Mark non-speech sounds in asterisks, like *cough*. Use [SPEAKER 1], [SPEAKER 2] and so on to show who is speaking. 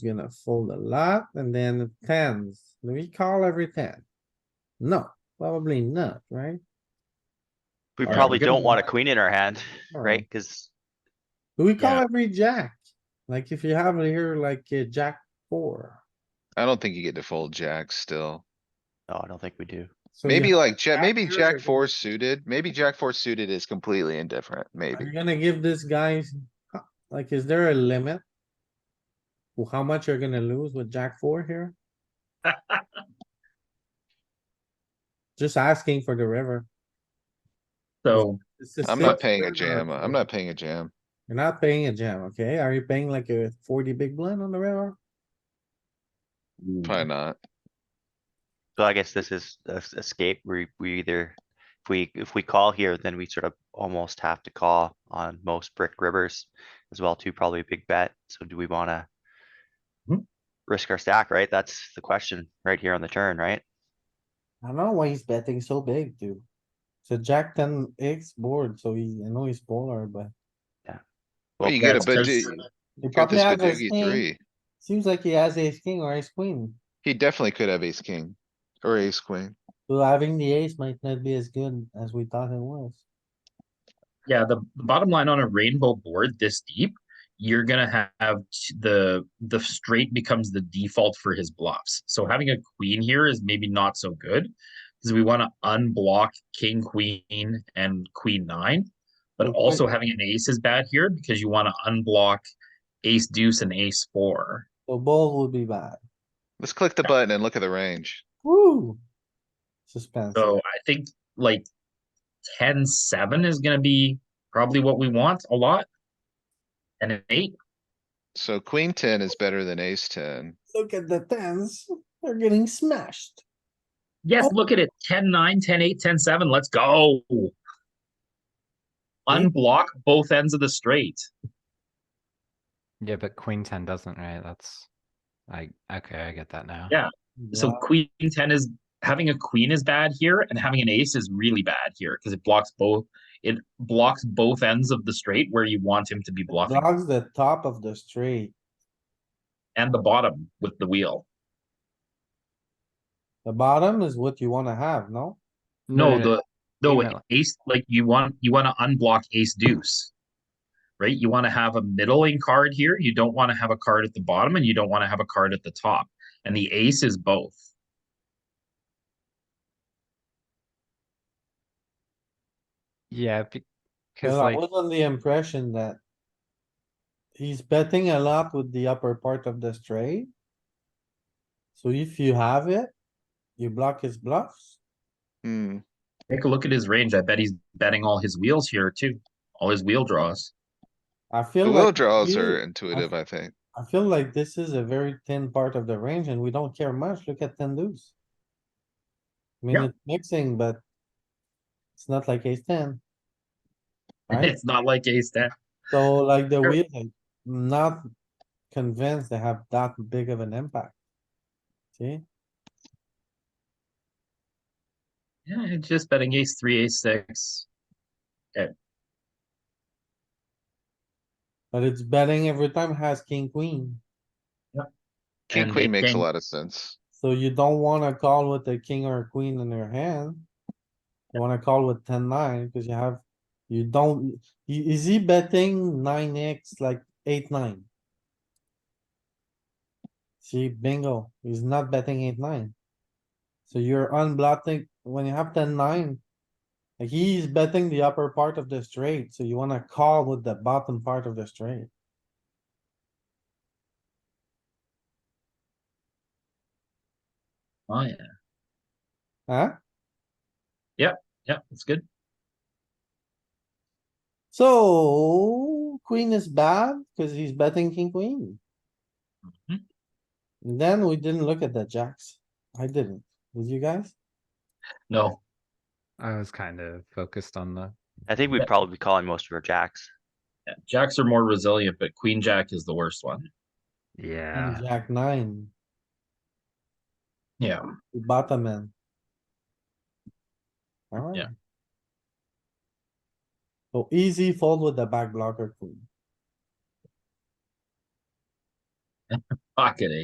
[SPEAKER 1] you're gonna fold a lot and then tens. Do we call every ten? No, probably not, right?
[SPEAKER 2] We
[SPEAKER 1] Alright,
[SPEAKER 2] probably
[SPEAKER 1] we're gonna-
[SPEAKER 2] don't want a queen in our hand,
[SPEAKER 1] Or
[SPEAKER 2] right? Cuz
[SPEAKER 1] Do we call
[SPEAKER 3] Yeah.
[SPEAKER 1] every jack? Like if you have it here like a jack four.
[SPEAKER 4] I don't think you get to fold jacks still.
[SPEAKER 2] no, oh, I don't think we do.
[SPEAKER 1] So you
[SPEAKER 4] Maybe like jack,
[SPEAKER 1] jack
[SPEAKER 4] maybe
[SPEAKER 1] here,
[SPEAKER 4] jack
[SPEAKER 1] but-
[SPEAKER 4] four suited, maybe jack four suited is completely indifferent,
[SPEAKER 1] Are you
[SPEAKER 4] maybe.
[SPEAKER 1] gonna give this guy, like, is there a limit? To how much you're gonna lose with jack four here?
[SPEAKER 4] *laughs*
[SPEAKER 1] Just asking for the river.
[SPEAKER 3] So
[SPEAKER 1] This is
[SPEAKER 4] I'm not
[SPEAKER 1] six
[SPEAKER 4] paying a
[SPEAKER 1] river.
[SPEAKER 4] jam, I'm not paying a jam.
[SPEAKER 1] You're not paying a jam, okay? Are you paying like a forty big blind on the river?
[SPEAKER 4] Probably not.
[SPEAKER 2] So I guess this is a s- escape. We, we either, if we, if we call here, then we sort of almost have to call on most brick rivers as well too, probably a big bet. So do we wanna
[SPEAKER 3] Hmm.
[SPEAKER 2] risk our stack, right? That's the question right here on the turn, right?
[SPEAKER 1] I don't know why he's betting so big, dude. It's a jack ten X board, so he, I know he's polar, but
[SPEAKER 4] Well,
[SPEAKER 2] Well,
[SPEAKER 4] you get a
[SPEAKER 3] that's
[SPEAKER 4] bad,
[SPEAKER 3] just-
[SPEAKER 4] you
[SPEAKER 1] he
[SPEAKER 4] got
[SPEAKER 1] probably
[SPEAKER 4] this
[SPEAKER 1] has ace
[SPEAKER 4] badoogie
[SPEAKER 1] king.
[SPEAKER 4] three.
[SPEAKER 1] Seems like he has ace king or ace queen,
[SPEAKER 4] He definitely could have ace king or ace queen.
[SPEAKER 1] so having the ace might not be as good as we thought it was.
[SPEAKER 3] yeah, the, the bottom line on a rainbow board this deep, you're gonna ha- have t- the the straight becomes the default for his bluffs. So having a queen here is maybe not so good because we want to unblock king queen and queen nine, but
[SPEAKER 1] Okay.
[SPEAKER 3] also having an ace is bad here because you want to unblock ace deuce and ace four.
[SPEAKER 1] So bold would be bad.
[SPEAKER 4] Let's click the button and look at the range.
[SPEAKER 1] Woo! Suspense.
[SPEAKER 3] So I think like 10 7 is going to be probably what we want a lot. And an 8.
[SPEAKER 4] So queen ten is better than ace ten.
[SPEAKER 1] Look at the tens, they're getting smashed.
[SPEAKER 3] Yes,
[SPEAKER 1] Oh.
[SPEAKER 3] look at it 10 9, 10 8, 10 7. Let's go. Unblock both ends of the straight.
[SPEAKER 5] Yeah, but queen ten doesn't, right? That's, I, okay, I get that now.
[SPEAKER 3] Yeah. So queen 10 is having a queen is bad here, and having an ace is really bad here because it blocks both. It blocks both ends of the straight where you want him to be
[SPEAKER 1] Wow.
[SPEAKER 3] bluffing
[SPEAKER 1] Blocks the top of the straight,
[SPEAKER 3] and the bottom with the wheel.
[SPEAKER 1] the bottom is what you wanna have, no?
[SPEAKER 3] No, the no
[SPEAKER 5] Email.
[SPEAKER 3] ace like you want you want to unblock ace deuce. Right? You want to have a middling card here. You don't want to have a card at the bottom and you don't want to have a card at the top. And the ace is both.
[SPEAKER 5] Yeah, because
[SPEAKER 1] Well, I
[SPEAKER 5] like,
[SPEAKER 1] was on the impression that. He's betting a lot with the upper part of the straight. So if you have it, you block his bluffs.
[SPEAKER 4] Hmm,
[SPEAKER 3] Take a look at his range. I bet he's betting all his wheels here too. All his wheel draws. *laughs*
[SPEAKER 1] I
[SPEAKER 4] the
[SPEAKER 1] feel
[SPEAKER 4] little
[SPEAKER 1] like,
[SPEAKER 4] draws
[SPEAKER 1] you-
[SPEAKER 4] are intuitive, I think.
[SPEAKER 1] I feel like this is a very thin part of the range and we don't care much. Look at ten deuce. I mean,
[SPEAKER 3] Yeah.
[SPEAKER 1] it's mixing, but. It's not like ace
[SPEAKER 3] *laughs*
[SPEAKER 1] ten. Right?
[SPEAKER 3] It's not like ace ten.
[SPEAKER 1] So like the
[SPEAKER 3] Sure.
[SPEAKER 1] wheel, I'm not convinced they have that big of an impact. See?
[SPEAKER 3] Yeah, it's just betting ace three, ace six.
[SPEAKER 1] But it's betting every time has king, queen,
[SPEAKER 4] King
[SPEAKER 3] and
[SPEAKER 4] queen
[SPEAKER 3] ace
[SPEAKER 4] makes a
[SPEAKER 3] king.
[SPEAKER 4] lot of sense.
[SPEAKER 1] so you don't wanna call with a king or a queen in your hand. You wanna call with ten nine, cause you have, you don't, i- is he betting nine X like eight, nine? See, bingo, he's not betting eight, nine. So you're unblocking, when you have ten, nine. Like he's betting the upper part of the straight, so you wanna call with the bottom part of the straight.
[SPEAKER 3] Oh yeah.
[SPEAKER 1] Huh?
[SPEAKER 3] Yeah, that's good.
[SPEAKER 1] So queen is bad because he's betting king, queen.
[SPEAKER 3] Mhm.
[SPEAKER 1] And Then we didn't look at the jacks. I didn't. Did you guys?
[SPEAKER 3] No.
[SPEAKER 5] I was kind of focused on the,
[SPEAKER 2] I think we'd probably be calling most of our jacks.
[SPEAKER 3] Yeah, Jacks are more resilient, but queen jack is the worst one.
[SPEAKER 1] And
[SPEAKER 5] yeah,
[SPEAKER 1] Jack nine,
[SPEAKER 3] Yeah.
[SPEAKER 1] the bottom end. Alright.
[SPEAKER 3] Yeah.
[SPEAKER 1] So easy fold with the back blocker queen.
[SPEAKER 3] pocket, eh?